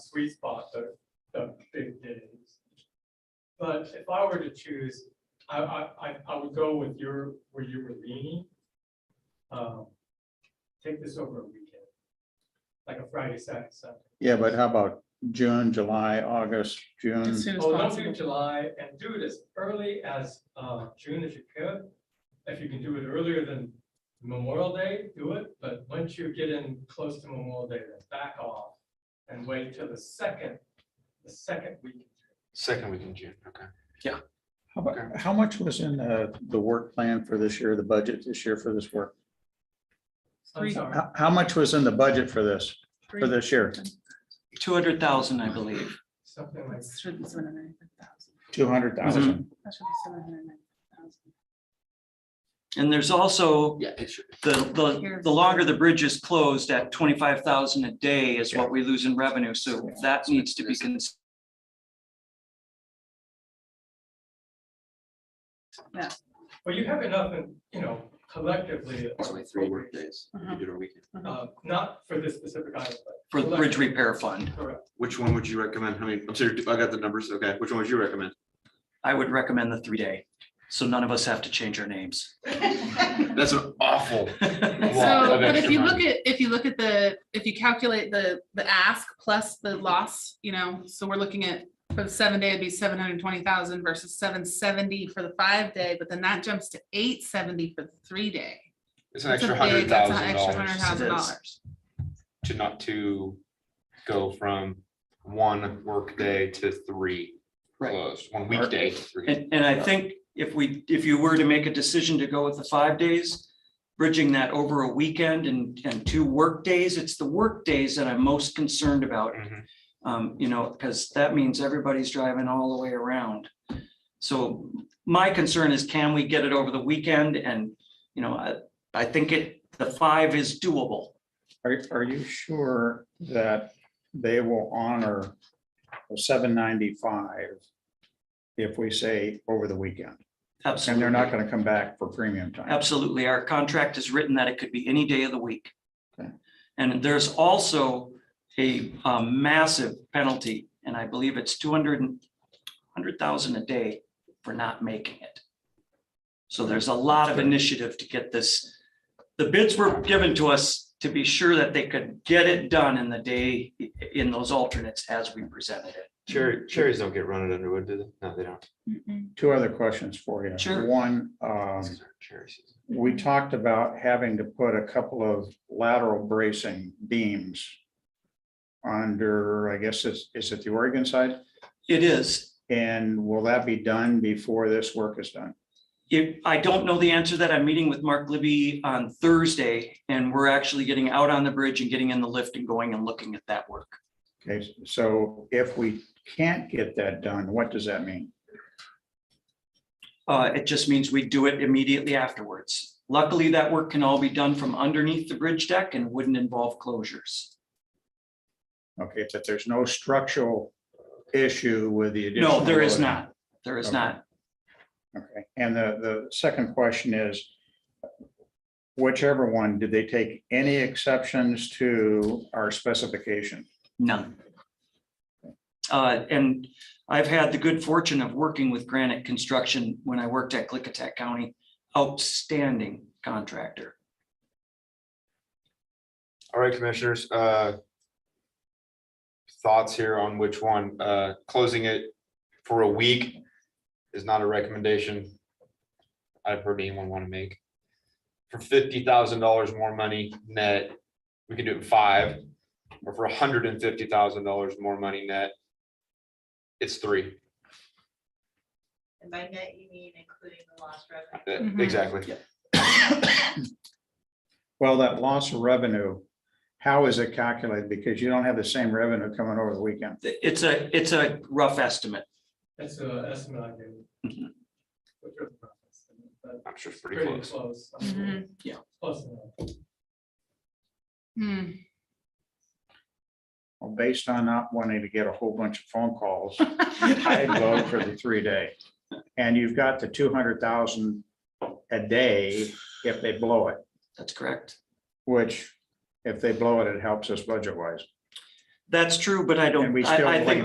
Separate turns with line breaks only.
sweet spot, the, the big days. But if I were to choose, I, I, I, I would go with your, where you were leaning. Um, Take this over a weekend. Like a Friday, Saturday, Sunday.
Yeah, but how about June, July, August, June?
As soon as
Oh, don't do
possible.
July and do it as early as, uh, June as you could. If you can do it earlier than Memorial Day, do it, but once you get in close to Memorial Day, then back off. And wait till the second, the second week. in June.
Second week in June, okay.
How about, how much was in the, the work plan for this year, the budget this year for this work?
I'm sorry.
How, how much was in the budget for this, for
Three.
this year?
two hundred thousand, I believe.
Something like,
It Should be seven hundred and fifty thousand.
Two hundred thousand?
That should be seven hundred and ninety
And there's also
Yeah, it should.
the, the, the longer the bridge is closed at twenty-five thousand a day is what we lose in revenue. So that needs to be considered.
well, you have enough, in you know, collectively.
It's only three workdays. You
Mhm.
could do it a weekend.
Uh, not for this specific item,
for the bridge repair fund.
but correct.
Which one would you recommend? I mean, I'm sorry, I got the numbers. Okay, which one would you recommend?
I would recommend the three-day, so none of us have to change our names.
thousand.
That's an awful. lot
So,
of
but if
extra
you
money.
look at, if you look at the, if you calculate the, the ask plus the loss, you know, so we're looking at. For the seven day, it'd be seven hundred and twenty thousand versus seven seventy for the five day, but then that jumps to eight seventy for the three day.
It's an
That's a
extra
big-
hundred
that's an
thousand
extra hundred
dollars
thousand
It is.
dollars.
to not to go from one workday to three
Right.
closed, one weekday. to three.
And, and I think if we, if you were to make a decision to go with the five days, bridging that over a weekend and, and two work days, it's the work days that I'm most concerned about.
Mhm.
Um, you know, because that means everybody's driving all the way around. So my concern is can we get it over the weekend and, you know, I, I think it, the five is doable.
Mm-hmm. Are, are you sure that they will honor seven ninety-five if we say over the weekend? And
Absolutely.
they're not gonna come back for premium time?
Absolutely. Our contract is written that it could be any day of the week.
Okay.
And there's also a um, massive penalty, and I believe it's two hundred and hundred thousand a day for not making it. So there's a lot of initiative to get this. The bids were given to us to be sure that they could get it done in the day, in those alternates as we presented it.
Cherry, cherries don't get run at Underwood, do they? No, they don't.
Two other questions for you.
Sure.
One, um,
These aren't cherry season.
we talked about having to put a couple of lateral bracing beams under, I guess, is, is it the Oregon side?
It is,
And will that be done before this work is done?
If, I don't know the answer to that, I'm meeting with Mark Libby on Thursday, and we're actually getting out on the bridge and getting in the lift and going and looking at that work.
Okay, so if we can't get that done, what does that mean?
Uh, it just means we do it immediately afterwards. Luckily, that work can all be done from underneath the bridge deck and wouldn't involve closures.
Okay, but there's no structural issue with the. additional
No, there is
loading.
not. There is not.
Okay, and the, the second question is, whichever one, did they take any exceptions to our specification?
None. Uh, and I've had the good fortune of working with Granite Construction when I worked at Clickitat County. Outstanding contractor.
All right, commissioners, uh. Thoughts here on which one, uh, closing it for a week is not a recommendation. I've heard anyone want to make. For fifty thousand dollars more money net, we can do it in five, or for hundred and fifty thousand dollars more money net. It's three,
And by net, you mean including the lost revenue.
Uh,
Mhm.
exactly.
Well, that loss of revenue, how is it calculated? Because you don't have the same revenue coming over the weekend.
It's a, it's a rough estimate.
That's an estimate I gave.
Mhm.
Which was not an estimate, but
I'm sure it's Mm-hmm. pretty
Pretty
close.
close. I mean,
Mhm.
Close enough.
Hmm.
Well, based on not wanting to get a whole bunch of phone calls, I vote for the three day. And you've got the two hundred thousand a day if they blow it,
That's correct.
which if they blow it, it helps us budget wise. That's true, but I
And
don't,
we
I,
still
I think